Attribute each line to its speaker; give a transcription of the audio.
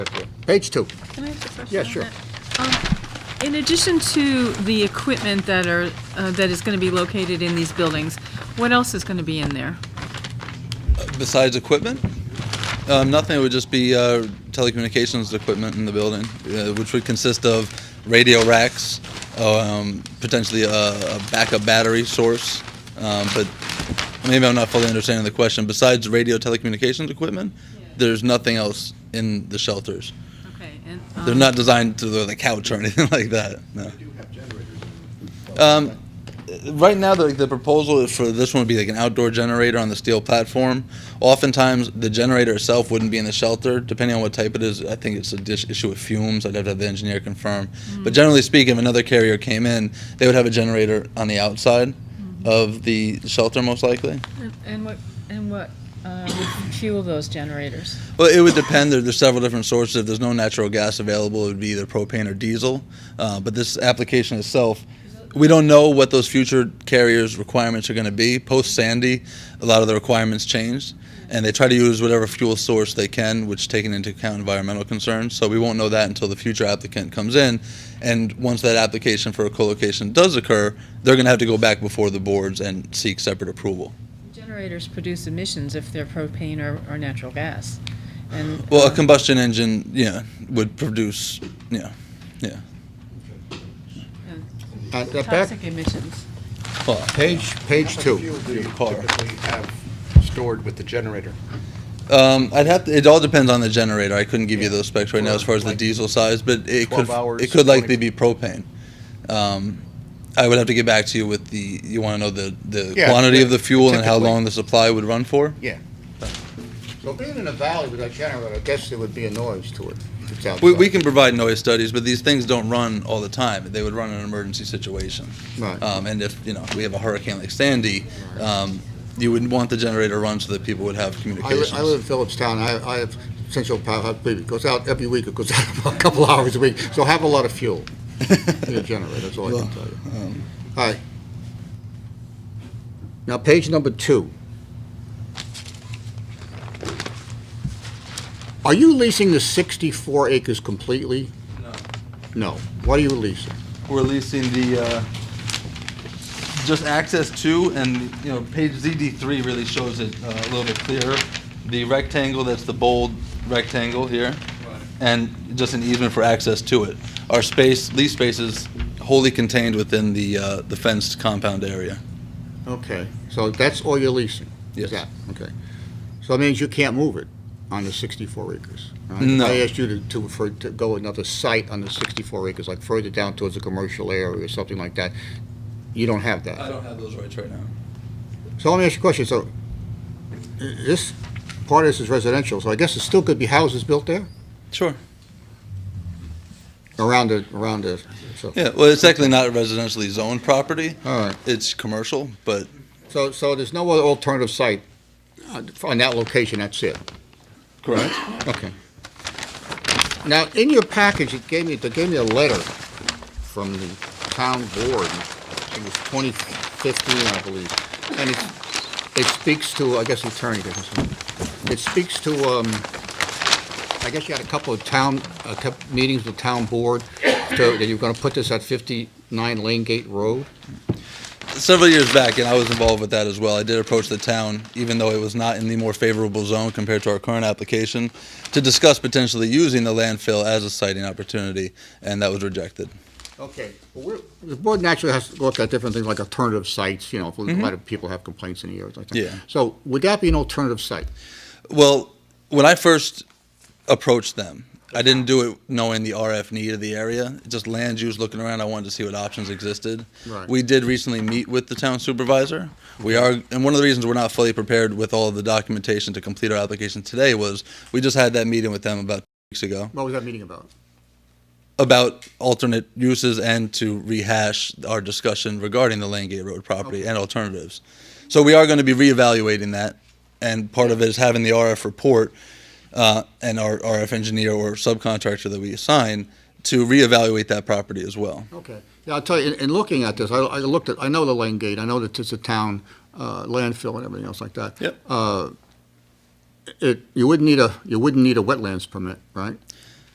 Speaker 1: Page two.
Speaker 2: Can I ask a question?
Speaker 1: Yeah,
Speaker 2: on
Speaker 1: sure.
Speaker 2: that? Um, In addition to the equipment that are, uh, that is going to be located in these buildings, what else is going to be in there?
Speaker 3: Besides equipment? Um, nothing, it would just be uh, telecommunications equipment in the building, uh, which would consist of radio racks, um, potentially a, a backup battery source. Um, but maybe I'm not fully understanding the question. Besides radio telecommunications equipment, there's nothing else in the shelters.
Speaker 2: Okay, and,
Speaker 3: They're
Speaker 2: um,
Speaker 3: not designed to the couch or anything like that. No. Um, right now, the, the proposal is for this one would be like an outdoor generator on the steel platform. Oftentimes, the generator itself wouldn't be in the shelter, depending on what type it is. I think it's a dish, issue with fumes. I'd have to have the engineer confirm. But generally speaking, if another carrier came in, they would have a generator on the outside of the shelter, most likely.
Speaker 2: and- And what, and what uh, would fuel those generators?
Speaker 3: Well, it would depend. There, there's several different sources. If there's no natural gas available, it would be either propane or diesel. Uh, but this application itself, we don't know what those future carriers' requirements are going to be. Post Sandy, a lot of the requirements changed, and they try to use whatever fuel source they can, which taking into account environmental concerns. So we won't know that until the future applicant comes in, and once that application for a co-location does occur, they're going to have to go back before the boards and seek separate approval.
Speaker 4: Generators produce emissions if they're propane or, or natural gas. And,
Speaker 3: Well, a
Speaker 2: um,
Speaker 4: uh,
Speaker 3: combustion engine, yeah, would produce, yeah, yeah.
Speaker 2: And
Speaker 1: Uh, that back,
Speaker 2: Toxic emissions.
Speaker 3: Well,
Speaker 1: page, page two.
Speaker 5: Fuel do you
Speaker 3: Car.
Speaker 5: typically have stored with the generator?
Speaker 3: um, I'd have to, it all depends on the generator. I couldn't give you those specs right now as far as the
Speaker 5: Like
Speaker 3: diesel size, but it
Speaker 5: 12
Speaker 3: could
Speaker 5: hours,
Speaker 3: it could
Speaker 5: 20
Speaker 3: likely be propane. Um, I would have to get back to you with the you want to know the the
Speaker 5: Yeah,
Speaker 3: quantity
Speaker 5: yeah,
Speaker 3: of the fuel and how
Speaker 5: typically.
Speaker 3: long the supply would run for.
Speaker 5: Yeah.
Speaker 1: So being in a valley with a generator, I guess there would be a noise to it. if it's
Speaker 3: We, we
Speaker 1: outside.
Speaker 3: can provide noise studies, but these things don't run all the time. They would run in an emergency situation.
Speaker 1: Right.
Speaker 3: Um, and if you know we have a hurricane like Sandy, um, you would want the generator run so that people would have
Speaker 1: I li-
Speaker 3: communications.
Speaker 1: I live in Phillipstown, I, I have central power, it goes out every week, it goes out about a couple hours a week, so have a lot of fuel in your generator, that's all I can tell you. All right. Now, page number two. Are you leasing the 64 acres completely?
Speaker 3: No.
Speaker 1: No. What are you leasing?
Speaker 3: we're leasing the, uh, just access to, and, you know, page ZD3 really shows it uh, a little bit clearer. The rectangle, that's the bold rectangle here, and just an easement for access to it. Our space, lease space is wholly contained within the uh, the fenced compound area.
Speaker 1: Okay. So that's all you're leasing? Is
Speaker 3: Yes.
Speaker 1: that, okay. So that means you can't move it on the 64 acres? right?
Speaker 3: No.
Speaker 1: I asked you to, to, for, to go another site on the 64 acres, like further down towards a commercial area or something like that. You don't have that?
Speaker 3: don't have those rights right now.
Speaker 1: So let me ask you a question, so, i- this, part of this is residential, so I guess there still could be houses built there?
Speaker 3: Sure.
Speaker 1: Around the, around the, so,
Speaker 3: Yeah, well, it's actually not a residentially zoned property.
Speaker 1: all right.
Speaker 3: It's commercial, but
Speaker 1: So, so there's no other alternative site uh, on that location, that's it?
Speaker 3: Correct.
Speaker 1: Okay. Now, in your package, it gave me, they gave me a letter from the town board, it was 2015, I believe, and it, it speaks to, I guess the attorney did this one. It speaks to, um, I guess you had a couple of town, uh, kept meetings with town board, to- that you're gonna put this at 59 Lane Gate Road?
Speaker 3: several years back, and I was involved with that as well. I did approach the town, even though it was not in the more favorable zone compared to our current application, to discuss potentially using the landfill as a siting opportunity, and that was rejected.
Speaker 1: Okay, well, we're- the board naturally has to look at different things like alternative sites, you know, if a lot of people have complaints in the area. like that.
Speaker 3: Mm-hmm. Yeah.
Speaker 1: So would that be an alternative site?
Speaker 3: Well, when I first approached them, I didn't do it knowing the RF need of the area. Just land use, looking around, I wanted to see what options existed.
Speaker 1: Right.
Speaker 3: We did recently meet with the town supervisor. We are, and one of the reasons we're not fully prepared with all of the documentation to complete our application today was we just had that meeting with them about two weeks ago.
Speaker 1: What was that meeting about?
Speaker 3: about alternate uses and to rehash our discussion regarding the Langate Road property and alternatives. So we are going to be reevaluating that, and part of it is having the RF report uh, and our RF engineer or subcontractor that we assign to reevaluate that property as well.
Speaker 1: Okay. Yeah, I'll tell you, in, in looking at this, I, I looked at, I know the lane gate, I know that it's a town, uh, landfill and everything else like that.
Speaker 3: Yep.
Speaker 1: Uh, it, you wouldn't need a, you wouldn't need a wetlands permit, right?